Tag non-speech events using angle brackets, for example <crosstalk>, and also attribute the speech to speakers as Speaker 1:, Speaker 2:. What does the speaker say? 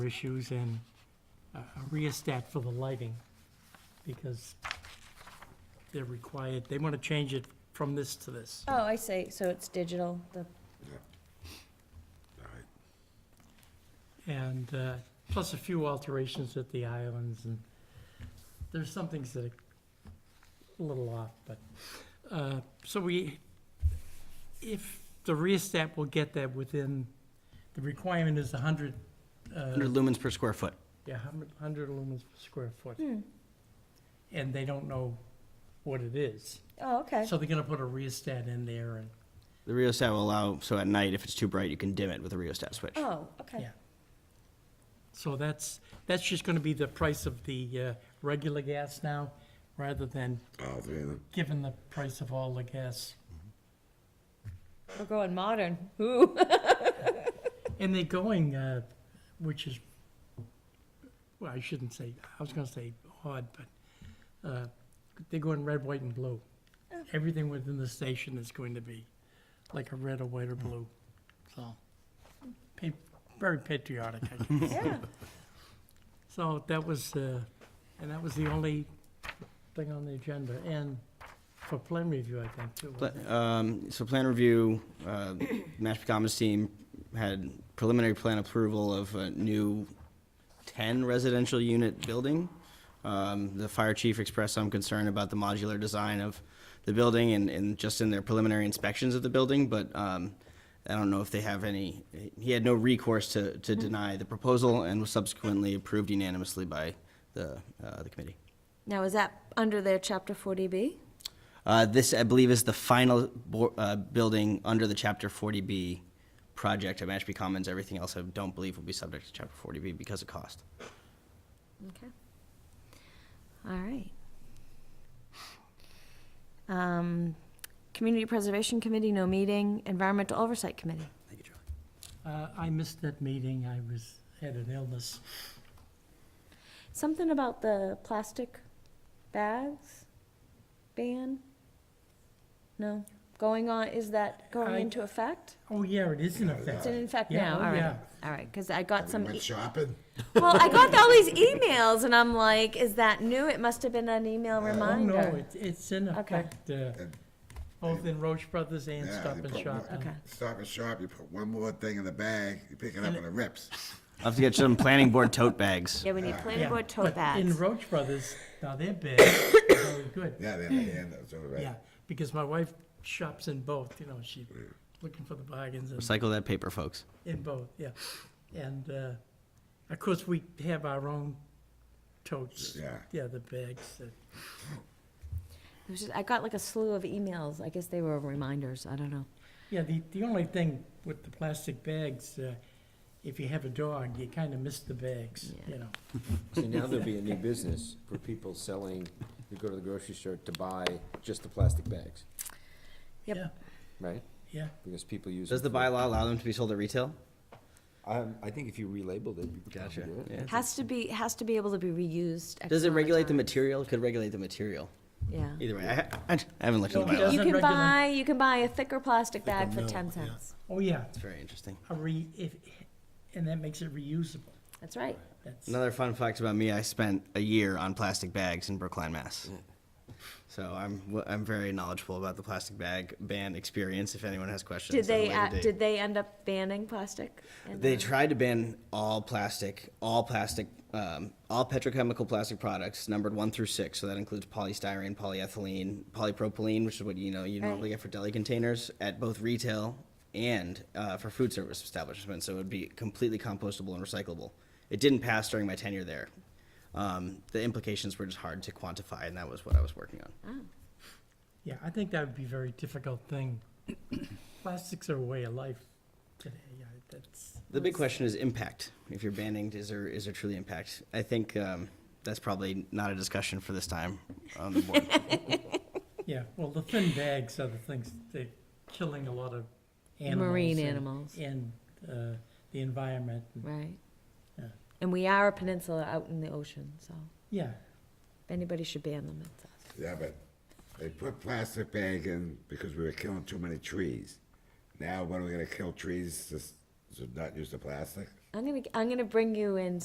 Speaker 1: issues and a a rheostat for the lighting, because they're required, they want to change it from this to this.
Speaker 2: Oh, I see, so it's digital, the,
Speaker 1: And uh, plus a few alterations at the islands, and there's some things that are a little off, but, uh, so we, if the rheostat will get that within, the requirement is 100, uh,
Speaker 3: 100 lumens per square foot.
Speaker 1: yeah, 100 lumens per square foot,
Speaker 2: hmm,
Speaker 1: and they don't know what it is.
Speaker 2: oh, okay,
Speaker 1: So they're gonna put a rheostat in there and,
Speaker 3: The rheostat will allow, so at night, if it's too bright, you can dim it with a rheostat switch.
Speaker 2: oh, okay,
Speaker 1: Yeah. so that's, that's just gonna be the price of the, uh, regular gas now, rather than
Speaker 4: All three of them.
Speaker 1: giving the price of all the gas.
Speaker 2: we're going
Speaker 1: <laughs>
Speaker 2: modern, ooh,
Speaker 1: And they're going, uh, which is, well, I shouldn't say, I was gonna say odd, but, uh, they're going red, white, and blue. Everything within the station is going to be like a red or white or blue, so. pa- Very patriotic, I guess.
Speaker 2: <laughs> yeah,
Speaker 1: So that was, uh, and that was the only thing on the agenda, and for plan review, I think, too.
Speaker 3: Pla-
Speaker 1: wasn't it?
Speaker 3: um, So plan review, uh, Mashpee Commons team had preliminary plan approval of a new 10 residential unit building. Um, The fire chief expressed some concern about the modular design of the building and, and just in their preliminary inspections of the building, but um, I don't know if they have any, he had no recourse to, to deny the proposal and was subsequently approved unanimously by the, uh, the committee.
Speaker 2: now is that under their chapter forty B?
Speaker 3: Uh, This, I believe, is the final bo- uh, building under the Chapter 40B project at Mashpee Commons. Everything else, I don't believe, will be subject to Chapter 40B because of cost.
Speaker 2: Okay. All right. Um, Community Preservation Committee, no meeting, Environmental Oversight Committee,
Speaker 3: Thank you, Charlie.
Speaker 1: Uh, I missed that meeting, I was, had an illness.
Speaker 2: something about the plastic bags ban? No, going on, is that
Speaker 1: I-
Speaker 2: going into effect?
Speaker 1: Oh, yeah, it is in
Speaker 2: It's
Speaker 1: effect.
Speaker 2: in effect
Speaker 1: Yeah,
Speaker 2: now,
Speaker 1: oh,
Speaker 2: all right,
Speaker 1: yeah.
Speaker 2: all right, because I got some.
Speaker 4: We
Speaker 2: e-
Speaker 4: went shopping.
Speaker 2: Well, I got all these emails, and I'm like, is that new? It must have been an email
Speaker 1: Oh, no,
Speaker 2: reminder.
Speaker 1: it's, it's in
Speaker 2: Okay.
Speaker 1: effect, uh,
Speaker 4: And-
Speaker 1: both in Roche Brothers and
Speaker 4: Yeah,
Speaker 1: Stop
Speaker 4: they
Speaker 1: and
Speaker 4: put
Speaker 1: Shop.
Speaker 4: one-
Speaker 2: Okay.
Speaker 4: Stop and shop, you put one more thing in the bag, you pick it up and it rips.
Speaker 3: I'll have to get some planning board
Speaker 2: <laughs>
Speaker 3: tote bags.
Speaker 2: Yeah, we need
Speaker 1: Yeah,
Speaker 2: planning board
Speaker 1: but
Speaker 2: tote
Speaker 1: In
Speaker 2: bags.
Speaker 1: Roche Brothers, now they're big, very good.
Speaker 4: Yeah, they had the end, that's all
Speaker 1: Yeah,
Speaker 4: right.
Speaker 1: because my wife shops in both, you know, she's looking for the bargains and.
Speaker 3: Recycle that paper, folks.
Speaker 1: In both, yeah. And, uh, of course, we have our own totes.
Speaker 4: Yeah.
Speaker 1: Yeah, the bags. uh, that-
Speaker 2: It was just- I got like a slew of emails. I guess they were reminders. I don't know.
Speaker 1: Yeah, the, the only thing with the plastic bags, uh, if you have a dog, you kind of miss the bags, you know.
Speaker 5: See, now there'll be
Speaker 3: <laughs>
Speaker 5: a new business for people selling, you go to the grocery store to buy just the plastic bags,
Speaker 2: Yep.
Speaker 1: Yeah,
Speaker 5: right?
Speaker 1: Yeah,
Speaker 5: Because people use.
Speaker 3: Does the
Speaker 5: them for-
Speaker 3: bylaw allow them to be sold at retail?
Speaker 5: Um, I think if you relabeled it, you could probably do it.
Speaker 3: Yeah.
Speaker 2: Has to be, has to be able to be reused. X
Speaker 3: Does it
Speaker 2: amount of
Speaker 3: regulate the
Speaker 2: time.
Speaker 3: material? Could regulate the material.
Speaker 2: Yeah.
Speaker 3: Either way, I, I I haven't looked at the
Speaker 1: Yeah.
Speaker 3: bylaw.
Speaker 2: You
Speaker 1: Doesn't
Speaker 2: can
Speaker 1: regulate-
Speaker 2: buy, you can buy a thicker plastic bag for ten cents.
Speaker 1: oh, yeah,
Speaker 3: It's very interesting.
Speaker 1: a re, if, and that makes it reusable.
Speaker 2: That's right.
Speaker 1: That's,
Speaker 3: Another fun fact about me, I spent a year on plastic bags in Brookline, Mass. Mm. So I'm, w- I'm very knowledgeable about the plastic bag ban experience, if anyone has questions.
Speaker 2: Did
Speaker 3: at a
Speaker 2: they,
Speaker 3: later
Speaker 2: uh,
Speaker 3: date.
Speaker 2: did they end up banning plastic? And,
Speaker 3: They
Speaker 2: uh,
Speaker 3: tried to ban all plastic, all plastic, um, all petrochemical plastic products numbered one through six. So that includes polystyrene, polyethylene, polypropylene, which is what, you know, you normally
Speaker 2: Right.
Speaker 3: get for deli containers at both retail and, uh, for food service establishments. So it would be completely compostable and recyclable. It didn't pass during my tenure there. Um, the implications were just hard to quantify and that was what I was working on.
Speaker 1: yeah, I think that would be a very difficult thing. <coughs> Plastics are a way of life today, yeah, that's,
Speaker 3: The big question is impact. If you're banning, is there is there truly impact? I think um, that's probably not a discussion for this time on the board.
Speaker 1: yeah, well, the thin bags are the things, they're killing a lot of animals.
Speaker 2: Marine
Speaker 1: and-
Speaker 2: animals,
Speaker 1: and uh, the environment.
Speaker 2: right?
Speaker 1: Yeah.
Speaker 2: And we are a peninsula out in the ocean, so
Speaker 1: Yeah,
Speaker 2: if anybody should ban them, it's us.
Speaker 4: Yeah, but they put plastic bag in because we were killing too many trees. Now, when are we gonna kill trees to, s- to not use the plastic?
Speaker 2: I'm gonna, I'm gonna bring you in